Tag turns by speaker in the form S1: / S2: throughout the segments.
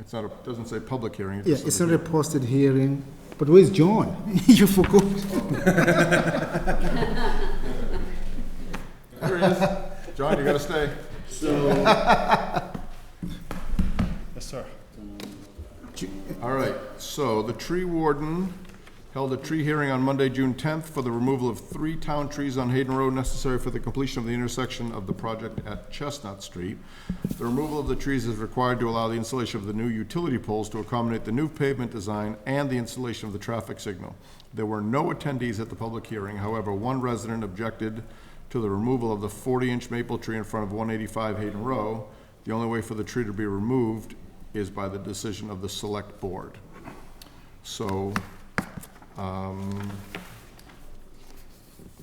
S1: It's not, a doesn't say public hearing. it
S2: Yeah,
S1: just
S2: it's
S1: says-
S2: not a posted hearing, but where's John? You forgot.
S1: There he is. John, you gotta stay.
S3: Yes, sir.
S1: All right, so the tree warden held a tree hearing on Monday, June 10th for the removal of three town trees on Hayden Road necessary for the completion of the intersection of the project at Chestnut Street. The removal of the trees is required to allow the installation of the new utility poles to accommodate the new pavement design and the installation of the traffic signal. There were no attendees at the public hearing, however, one resident objected to the removal of the 40-inch maple tree in front of 185 Hayden Row. The only way for the tree to be removed is by the decision of the select board. So, um,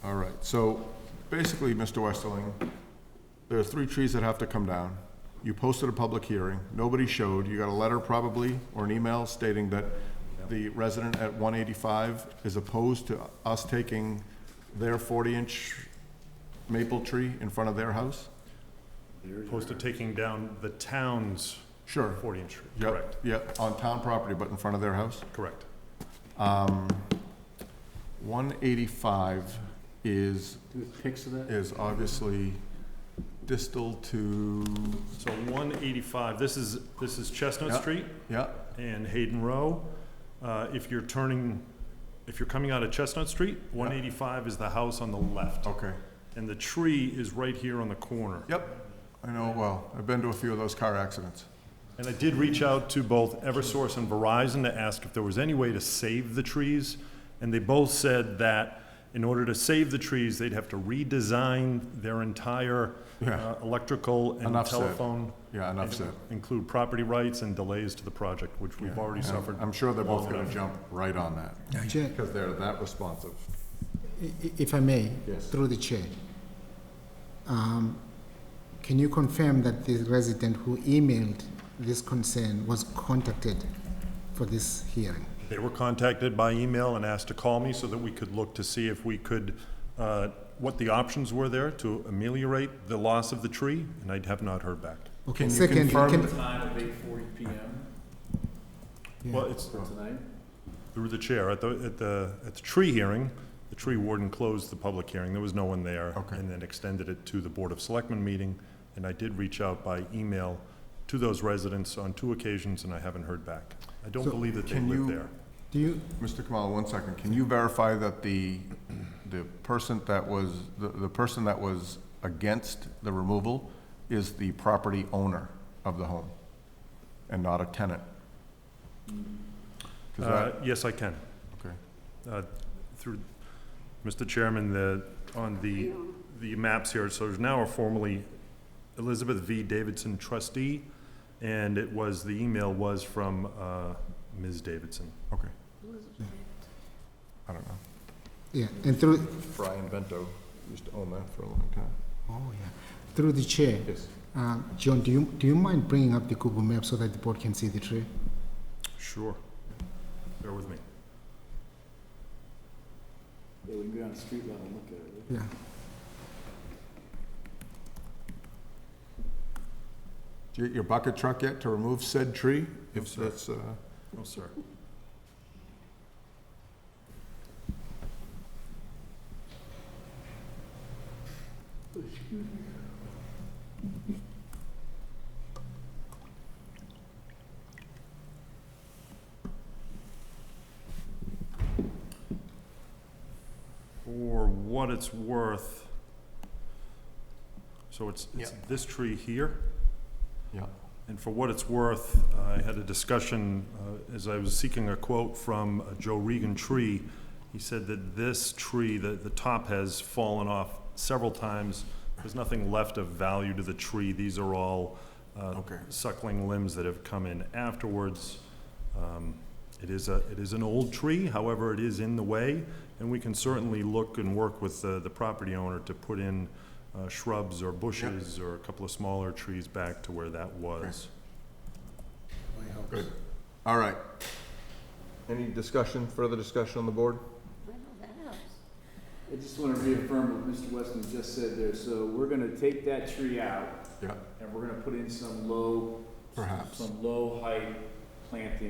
S1: all right, so basically, Mr. Westerling, there are three trees that have to come down. You posted a public hearing, nobody showed, you got a letter probably, or an email stating that the resident at one eighty-five is opposed to us taking their forty-inch maple tree in front of their house?
S3: Opposed to taking down the town's
S1: Sure.
S3: 40-inch tree.
S1: Yep,
S3: Correct,
S1: Yep, on town property, but in front of their house?
S3: correct.
S1: One eighty-five is,
S4: Pics of that?
S1: is obviously distal to,
S3: So 185, this is, this is Chestnut
S1: Yeah.
S3: Street
S1: yeah,
S3: and Hayden Row. Uh, If you're turning, if you're coming out of Chestnut Street, 185 is the house on the left.
S1: okay.
S3: And the tree is right here on the corner.
S1: Yep, I know, it well, I've been to a few of those car accidents.
S3: And I did reach out to both Eversource and Verizon to ask if there was any way to save the trees. And they both said that in order to save the trees, they'd have to redesign their entire
S1: Yeah.
S3: uh, electrical and
S1: Enough said.
S3: telephone.
S1: Yeah, enough
S3: and
S1: said.
S3: Include property rights and delays to the project, which we've already
S1: And
S3: suffered.
S1: I'm sure they're both
S3: long
S1: gonna
S3: enough.
S1: jump right on that,
S2: Chair,
S1: because they're that responsive.
S2: i- i- if I may,
S1: Yes.
S2: through the chair. Um, Can you confirm that the resident who emailed this concern was contacted for this hearing?
S3: They were contacted by email and asked to call me so that we could look to see if we could, uh, what the options were there to ameliorate the loss of the tree, and I have not heard back.
S2: Okay,
S1: Can you
S2: secondly,
S1: confirm
S2: can-
S1: that-
S4: Time of eight forty PM
S2: Yeah.
S3: Well, it's,
S4: for tonight?
S3: Through the chair, at the, at the, at the tree hearing, the tree warden closed the public hearing, there was no one there.
S1: Okay.
S3: And then extended it to the Board of Selectmen meeting, and I did reach out by email to those residents on two occasions, and I haven't heard back. I don't
S2: So,
S3: believe that they
S1: can
S3: live
S1: you-
S3: there.
S2: Do you,
S1: Mr. Kamala, one second, can you verify that the, the person that was, the, the person that was against the removal is the property owner of the home and not a tenant? 'Cause
S3: Uh,
S1: that-
S3: yes, I can.
S1: okay.
S3: Uh, Through, Mr. Chairman, the, on the, the maps here, so there's now a formerly Elizabeth V. Davidson trustee, and it was, the email was from, uh, Ms. Davidson.
S1: Okay. I don't know.
S2: yeah, and through,
S1: Brian Bento used to own that for a long time.
S2: oh, yeah, through the chair.
S1: Yes.
S2: Uh, John, do you, do you mind bringing up the Google map so that the board can see the tree?
S3: Sure. Bear with me.
S4: Yeah, we can go down the street level and look at it.
S2: Yeah.
S1: Do you get your bucket truck yet to remove said tree?
S3: No,
S1: If
S3: sir.
S1: that's, uh,
S3: Oh, sir. For what it's worth, so it's, it's this tree here?
S1: yeah.
S3: And for what it's worth, I had a discussion uh, as I was seeking a quote from uh, Joe Regan Tree. He said that this tree, the, the top has fallen off several times. There's nothing left of value to the tree. These are all uh,
S1: Okay.
S3: suckling limbs that have come in afterwards. Um, It is a, it is an old tree, however, it is in the way, and we can certainly look and work with the, the property owner to put in uh, shrubs or bushes or a couple of smaller trees back to where that was.
S1: Good. All right. Any discussion, further discussion on the board?
S4: I just wanna reaffirm what Mr. Weston just said there, so we're gonna take that tree out
S1: Yeah.
S4: and we're gonna put in some low
S1: Perhaps.
S4: Some low height planting